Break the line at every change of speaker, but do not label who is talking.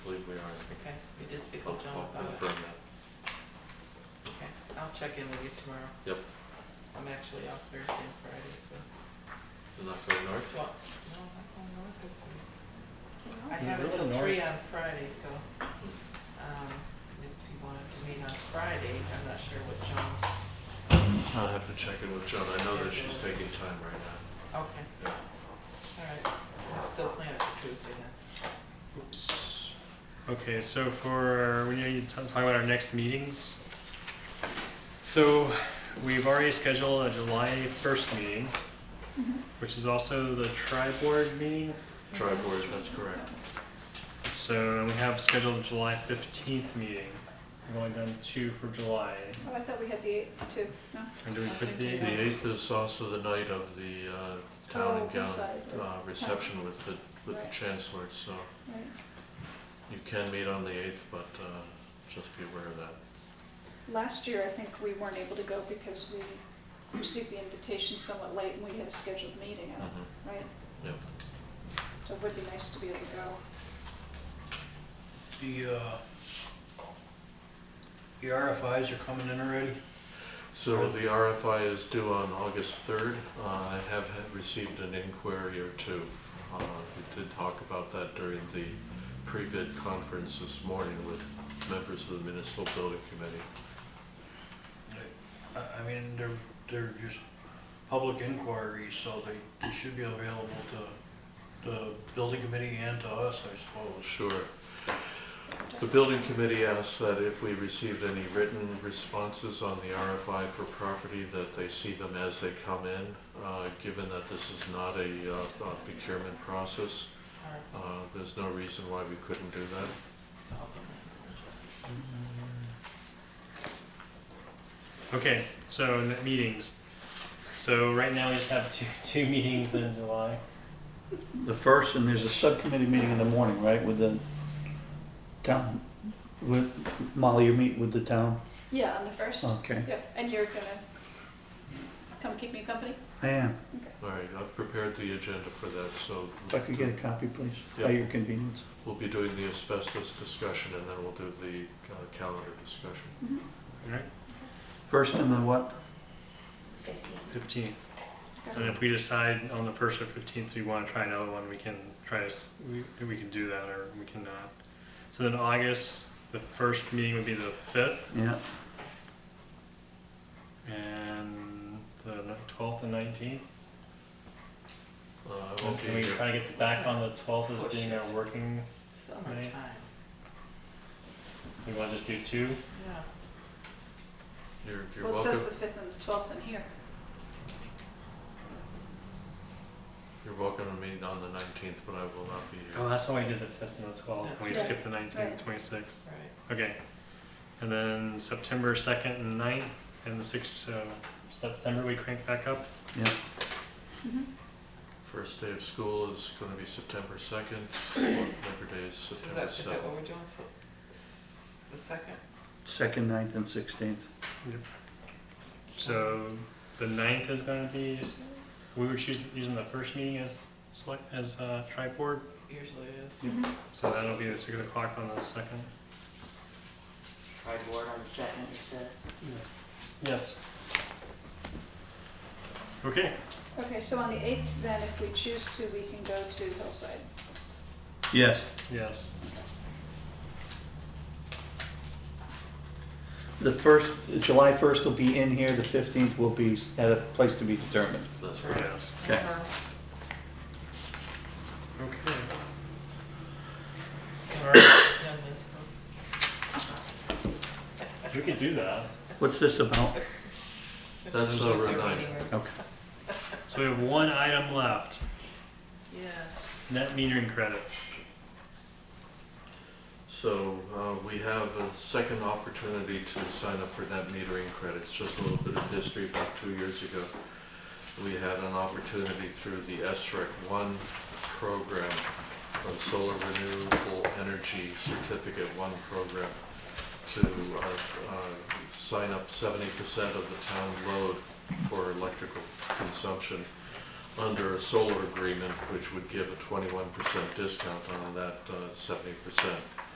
check in with you tomorrow.
Yep.
I'm actually off Thursday and Friday, so.
You're not going north?
Well, no, I'm not going north this week. I
You're
have
really
until
north.
three on Friday, so, um, if you wanted to meet on Friday, I'm not sure what John's,
I'll have to check in with Joan, I know that she's taking time right now.
okay, all right. I'll still plan it for Tuesday then.
Oops.
Okay, so for, we need to t- talk about our next meetings. So we've already scheduled a July first meeting,
Mm-hmm.
which is also the tri-board meeting.
Tri board, that's correct.
So we have scheduled a July fifteenth meeting. We've only done two for July.
Oh, I thought we had the eighth too, no?
And do we put the,
The eighth is also the night of the uh, town
Oh,
and gown
inside, right.
uh, reception with the, with the
Right.
chancellor, so
Right.
you can meet on the eighth, but uh, just be aware of that.
Last year, I think we weren't able to go because we received the invitation somewhat late and we had a scheduled meeting out,
Mhm.
right?
Yep.
So it would be nice to be able to go.
The, uh, the RFIs are coming in already?
So the RFI is due on August third. Uh, I have had- received an inquiry or two. Uh, We did talk about that during the pre-bid conference this morning with members of the municipal building committee.
I, I mean, they're, they're just public inquiries, so they, they should be available to the building committee and to us, I suppose.
Sure. The building committee asked that if we received any written responses on the RFI for property, that they see them as they come in, uh, given that this is not a uh, procurement process.
All right.
uh, There's no reason why we couldn't do that.
I'll be back.
okay, so in the meetings. So right now we just have two, two meetings in July.
The first, and there's a subcommittee meeting in the morning, right, with the town, with, Molly, you meet with the town?
Yeah, on the first.
Okay,
Yep, and you're gonna come keep me company?
I am.
All right, I've prepared the agenda for that, so.
If I could get a copy, please,
Yeah.
at your convenience.
We'll be doing the asbestos discussion, and then we'll do the uh, calendar discussion.
All right,
First and then what?
fifteenth. And
Okay.
if we decide on the first or fifteenth, we want to try another one, we can try to, s- we, we can do that or we can not. So then August, the first meeting would be the fifth
Yeah,
and the twelfth and nineteenth.
Uh, I won't
Can
be
we
here.
try to get back on the twelfth as being our
Push it.
working?
Summertime,
We want to just do two?
yeah.
You're, you're
Well, it
welcome,
says the fifth and the twelfth in here.
you're welcome to meet on the nineteenth, but I will not be
Oh,
here.
that's why we did the fifth and the twelfth, we
That's
right.
skipped the nineteenth and
Right.
twenty-sixth.
All right.
Okay. And then September second and 9th, and the sixth, so September we crank back up.
yeah.
First day of school is gonna be September second, Labor Day is
So is
September
that, is that what
seventh.
we're doing, so, s- the second?
Second, ninth, and sixteenth.
So the ninth is gonna be, we were choosing, using the first meeting as select, as uh, tri-board,
Usually it is.
Yep.
so that'll be the six o'clock on the second.
Cardboard on the second, you said?
Yes. Okay,
Okay, so on the eighth, then if we choose to, we can go to Hillside.
Yes.
yes.
The first, July first will be in here, the fifteenth will be at a place to be determined.
That's right.
Yes.
Okay.
Uh-huh.
Okay. All right,
Young men's group.
we could do that.
What's this about?
That's
Tuesday,
over
they're
nine.
meeting room.
Okay.
So we have one item left,
Yes.
net metering credits.
So, uh, we have a second opportunity to sign up for net metering credits, just a little bit of history, about two years ago. We had an opportunity through the SREC one program, uh, Solar Renewable Energy Certificate One program, to, uh, uh, sign up seventy percent of the town load for electrical consumption under a solar agreement, which would give a twenty-one percent discount on that uh, seventy percent.